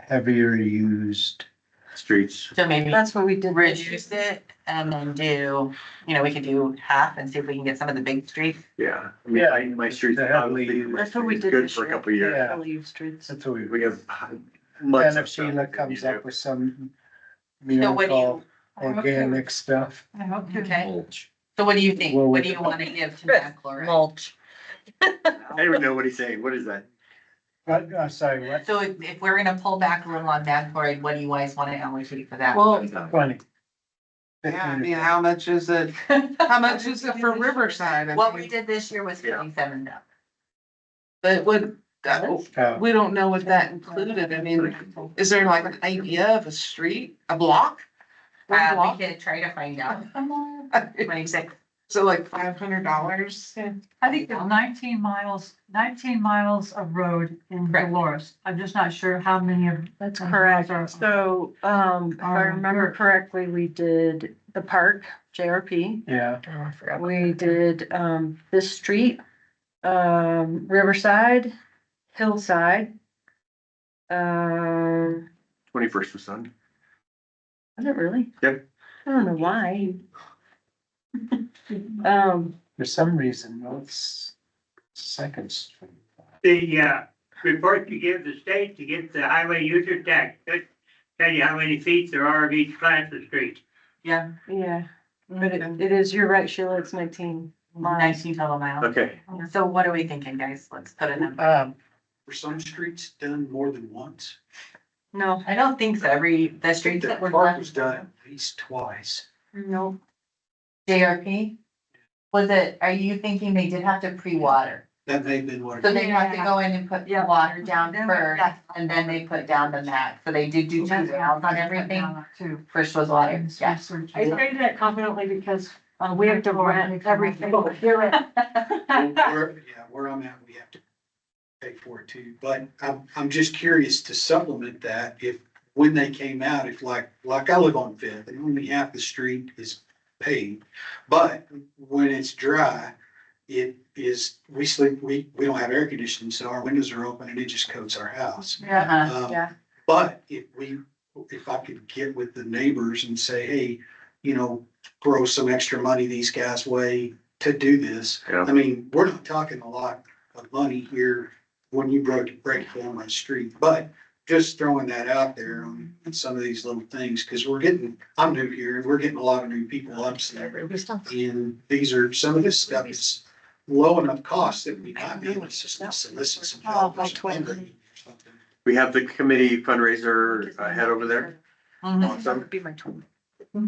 heavier used. streets. So maybe That's what we did. reduce it and then do, you know, we could do half and see if we can get some of the big streets. Yeah. I mean, I- my streets. Yeah, probably- exactly. my That's what we street's did Good this for a year. couple of years. Yeah. Alley of streets. That's what we. We have. much And if stuff Sheila that we comes do. up with some So what do miracle you, organic stuff, I hope you okay? So what do you think? Well, What we- do you want to give to Matt Laura? Mulch. I don't even know what he's saying. What is that? but I'm sorry, what, So if, if we're gonna pull back a little on Matt Laura, what do you guys want to allocate for that? Oh. Well, funny. yeah, I mean, how much is it, how much is it for Riverside? I What mean, we did this year was Yeah. twenty-seven thousand. But would, that- Uh, we don't know what that included. I mean, is there like an idea of a street, a block? One Uh, block? we could try to find out. Twenty-six. So like five hundred dollars? I think there's nineteen miles, nineteen miles of road in Correct. Dolores. I'm just not sure how many of. That's Mhm. correct. Or- So, um, if I Um, remember you're- correctly, we did the park, JRP. yeah, We did, um, this street, um, Riverside, Hillside. Um, Twenty-first was Sunday. was it really? Yep. I don't know why. Um, for some reason, no, it's second street. The, uh, report you give the state to get the highway user tax, that tell you how many feet there are of each class of street. Yeah, yeah, but it, Okay. it is, you're right, Sheila, it's nineteen. nineteen total miles. Okay. So what are we thinking, guys? Let's put a number. Um, Were some streets done more than once? No, I don't think so. Every, the streets The that were park was left, done at least twice. no, JRP, was it, are you thinking they did have to pre-water? That may have been what. So they have to go in and put Yeah. water down Then we- first, and then they put down the mat. So they did do two rounds on everything. Too. First was water, yeah. I say that confidently because, uh, we have to rent everything. Where, yeah, where I'm at, we have to pay for it too, but I'm, I'm just curious to supplement that if, when they came out, if like, like I live on Fifth, and only half the street is paved. But when it's dry, it is, we sleep, we, we don't have air conditioning, so our windows are open and it just coats our house. Yeah, Uh-huh. Um, yeah. But if we, if I could get with the neighbors and say, hey, you know, throw some extra money these guys' way to do this. Yeah. I mean, we're not talking a lot of money here when you break, break down my street, but just throwing that out there on some of these little things, because we're getting, I'm new here, and we're getting a lot of new people up there. And these are, some of this stuff is low enough cost that we might be able to solicit some. Oh, by help or something. We have the committee fundraiser uh, head over there. Mm-hmm. Mm-hmm. Mhm. Awesome. be my twin.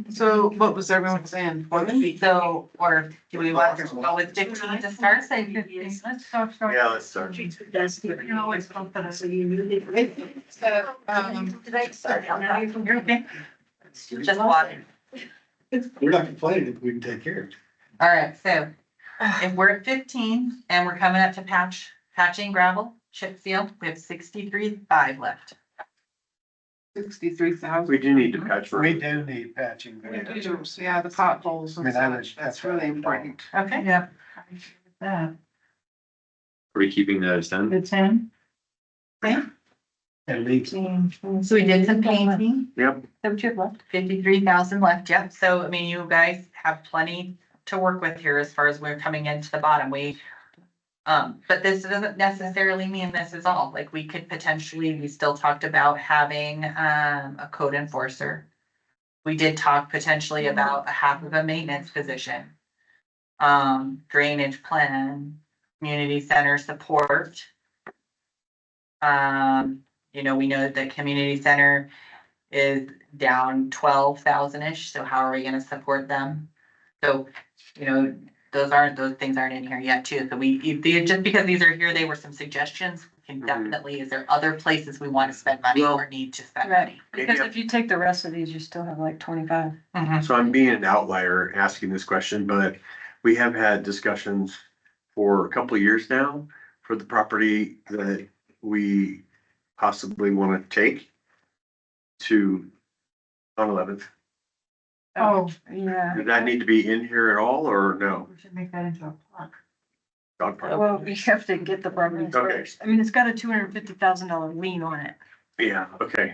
So what was everyone saying? Twenty? So, or do we want to go with fifteen to start? Say fifteen, let's start, start. Yeah, let's start. You can always go for this. So, um, You're okay. Just water. We're not complaining if we can take care of it. All right, so if we're at fifteen and we're coming up to patch, patching gravel, chip seal, we have sixty-three five left. sixty-three thousand. We do need to patch. We do need patching. there. Yeah, the potholes I and mean, I would- such, that's really important. Okay. Yeah. That, Are we keeping that as ten? the ten, At least, So we did some painting, Yep. Haven't you left? fifty-three thousand left, yep. So, I mean, you guys have plenty to work with here as far as we're coming into the bottom. We, um, but this doesn't necessarily mean this is all. Like, we could potentially, we still talked about having, um, a code enforcer. We did talk potentially about a half of a maintenance position. Um, drainage plan, community center support. Um, you know, we know that community center is down twelve thousand-ish, so how are we gonna support them? So, you know, those aren't, those things aren't in here yet too, so we, if they- just because these are here, they were some suggestions. We Can Mhm. definitely, is there other places we wanna spend money Well- or need to spend Right. money? Because if you take the rest of these, you still have like twenty-five. So I'm being an outlier asking this question, but we have had discussions for a couple of years now for the property that we possibly want to take to on eleventh. oh, Yeah. Did that need to be in here at all or no? we should make that into a plot. Dog park. Well, we have to get the property Okay. first. I mean, it's got a two hundred and fifty thousand dollar lien on it. Yeah, okay.